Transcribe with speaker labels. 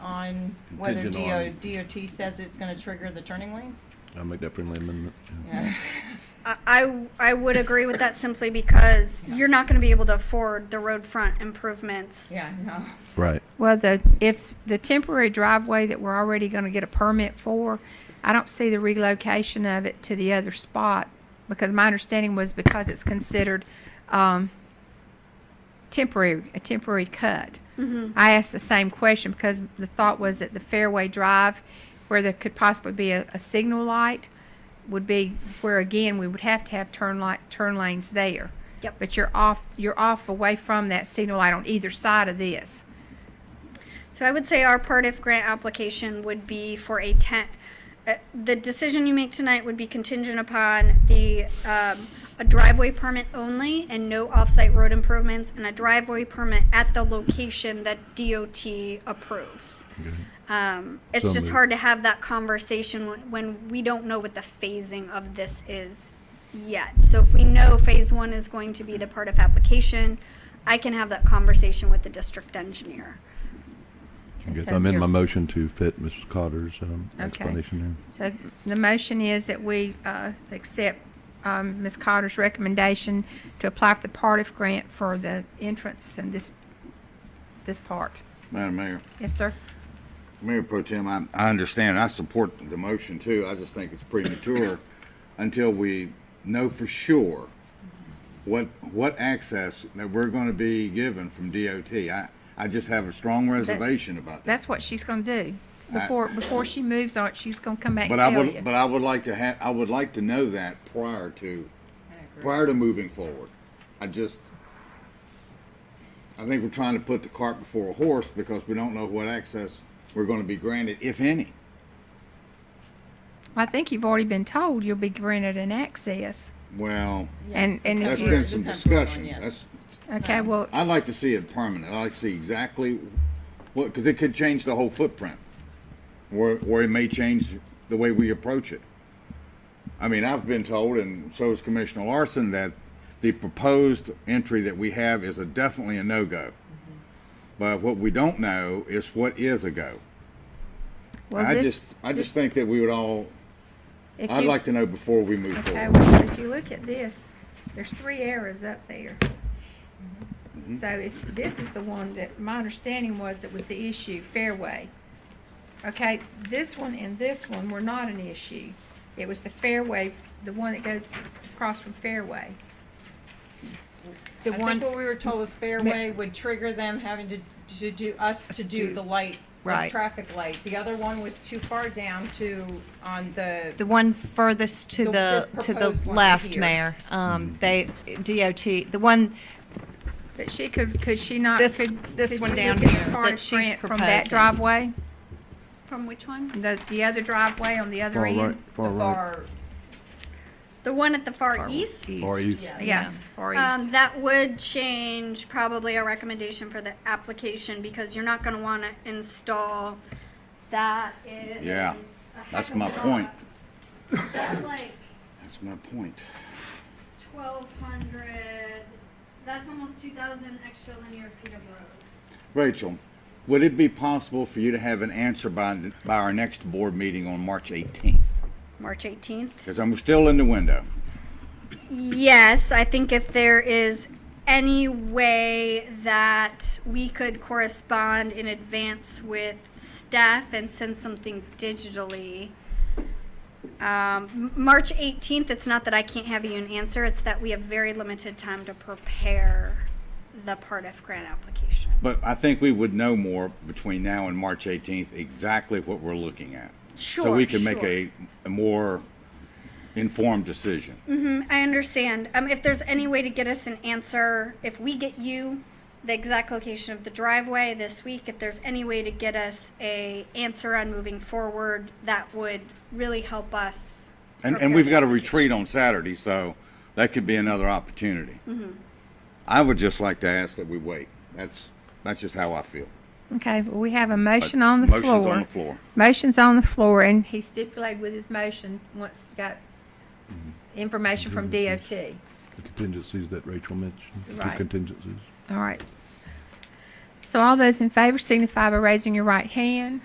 Speaker 1: whether
Speaker 2: contingent
Speaker 1: DO,
Speaker 2: on-
Speaker 1: DOT says it's gonna trigger the turning lanes?
Speaker 2: I'll make that friendly amendment.
Speaker 1: Yeah.
Speaker 3: I- I, I would agree with that simply because you're not going to be able to afford the road front improvements.
Speaker 1: Yeah, no.
Speaker 2: Right.
Speaker 4: Well, the, if the temporary driveway that we're already gonna get a permit for, I don't see the relocation of it to the other spot, because my understanding was because it's considered, um, temporary, a temporary cut. I asked the same question, because the thought was that the Fairway Drive, where there could possibly be a, a signal light, would be where again, we would have to have turn light, turn lanes there.
Speaker 3: Yep.
Speaker 4: But you're off, you're off away from that signal light on either side of this.
Speaker 3: So I would say our part if grant application would be for a ten, uh, the decision you make tonight would be contingent upon the, um, a driveway permit only and no off-site road improvements and a driveway permit at the location that DOT approves. Um, it's
Speaker 2: So
Speaker 3: just
Speaker 2: moved.
Speaker 3: hard to have that conversation when, when we don't know what the phasing of this is yet. So if we know phase one is going to be the part of application, I can have that conversation with the district engineer.
Speaker 2: I guess
Speaker 4: So
Speaker 2: I'm in my
Speaker 4: you're-
Speaker 2: motion to fit Mrs. Cotter's um,
Speaker 4: Okay.
Speaker 2: explanation
Speaker 4: So the motion is that we uh, accept um, Ms. Cotter's recommendation to apply for the Partiff grant for the entrance and this, this part.
Speaker 5: Madam Mayor,
Speaker 4: Yes, sir?
Speaker 5: Mayor Pro Tem, I, I understand, I support the motion too, I just think it's premature until we know for sure what, what access that we're gonna be given from DOT. I, I just have a strong reservation about that.
Speaker 4: That's what she's going to do. Before, before she moves on it, she's going to come back and
Speaker 5: But I
Speaker 4: tell
Speaker 5: would,
Speaker 4: you.
Speaker 5: but I would like to have, I would like to know that prior to, prior to moving forward. I just, I think we're trying to put the cart before a horse because we don't know what access we're gonna be granted, if any.
Speaker 4: I think you've already been told you'll be granted an access.
Speaker 5: Well,
Speaker 4: And, and if
Speaker 5: That's
Speaker 4: you,
Speaker 5: been some
Speaker 1: The temporary one,
Speaker 5: discussion.
Speaker 1: yes.
Speaker 5: That's,
Speaker 4: okay, well,
Speaker 5: I'd like to see it permanent. I'd like to see exactly what, because it could change the whole footprint. Or, or it may change the way we approach it. I mean, I've been told, and so is Commissioner Larson, that the proposed entry that we have is a definitely a no-go.
Speaker 4: Mm-hmm.
Speaker 5: But what we don't know is what is a go.
Speaker 4: well,
Speaker 5: I
Speaker 4: this.
Speaker 5: just, I
Speaker 4: this-
Speaker 5: just think that we would all,
Speaker 4: if
Speaker 5: I'd
Speaker 4: you-
Speaker 5: like to know before we move
Speaker 4: Okay,
Speaker 5: forward.
Speaker 4: well, if you look at this, there's three arrows up there. So if, this is the one that, my understanding was it was the issue, fairway. Okay, this one and this one were not an issue. It was the fairway, the one that goes across from fairway. The
Speaker 1: I think
Speaker 4: one,
Speaker 1: what we were told was Fairway would trigger them having to, to do, us to do
Speaker 4: do-
Speaker 1: the light,
Speaker 6: Right.
Speaker 1: this traffic light. The other one was too far down to, on the,
Speaker 6: The one furthest to
Speaker 1: The-
Speaker 6: the,
Speaker 1: this
Speaker 6: to the
Speaker 1: proposed one
Speaker 6: left,
Speaker 1: here.
Speaker 6: Mayor, um, they, DOT, the one,
Speaker 4: but she could, could she not,
Speaker 6: This-
Speaker 4: could,
Speaker 6: this
Speaker 4: could
Speaker 6: one
Speaker 4: you
Speaker 6: down
Speaker 4: look at
Speaker 6: here
Speaker 4: the
Speaker 6: that
Speaker 4: Cardiff
Speaker 6: she's
Speaker 4: grant from that
Speaker 6: proposing.
Speaker 4: driveway?
Speaker 3: From which one?
Speaker 4: The, the other driveway on the other
Speaker 2: Far right,
Speaker 4: end?
Speaker 1: the
Speaker 2: far right.
Speaker 1: far,
Speaker 3: The one at the far east?
Speaker 2: Or you,
Speaker 1: yeah.
Speaker 4: Yeah, far east.
Speaker 3: Um, that would change probably our recommendation for the application because you're not gonna wanna install that is.
Speaker 5: Yeah,
Speaker 3: a heck
Speaker 5: that's
Speaker 3: of a
Speaker 5: my
Speaker 3: lot.
Speaker 5: point.
Speaker 3: That's like
Speaker 5: That's my point.
Speaker 3: twelve hundred, that's almost two thousand extra linear feet of road.
Speaker 5: Rachel, would it be possible for you to have an answer by, by our next board meeting on March 18th?
Speaker 3: March eighteenth?
Speaker 5: Because I'm still in the window.
Speaker 3: Yes, I think if there is any way that we could correspond in advance with staff and send something digitally. Um, M- March 18th, it's not that I can't have you an answer, it's that we have very limited time to prepare the Part F grant application.
Speaker 5: But I think we would know more between now and March 18th exactly what we're looking at. So we
Speaker 3: Sure,
Speaker 5: can make
Speaker 3: sure.
Speaker 5: a, a more informed decision.
Speaker 3: Mm-hmm. I understand. Um, if there's any way to get us an answer, if we get you the exact location of the driveway this week, if there's any way to get us a answer on moving forward, that would really help us.
Speaker 5: And,
Speaker 3: prepare
Speaker 5: and we've
Speaker 3: the
Speaker 5: got a
Speaker 3: application.
Speaker 5: retreat on Saturday, so that could be another opportunity.
Speaker 3: Mm-hmm.
Speaker 5: I would just like to ask that we wait. That's, that's just how I feel.
Speaker 4: Okay, well, we have a motion on the floor.
Speaker 5: Motion's on the floor.
Speaker 4: Motion's on the floor, and he stipulated with his motion, once he got information from DOT.
Speaker 2: the contingencies that Rachel mentioned, the
Speaker 4: Right.
Speaker 2: contingencies.
Speaker 4: All right. So all those in favor signify by raising your right hand.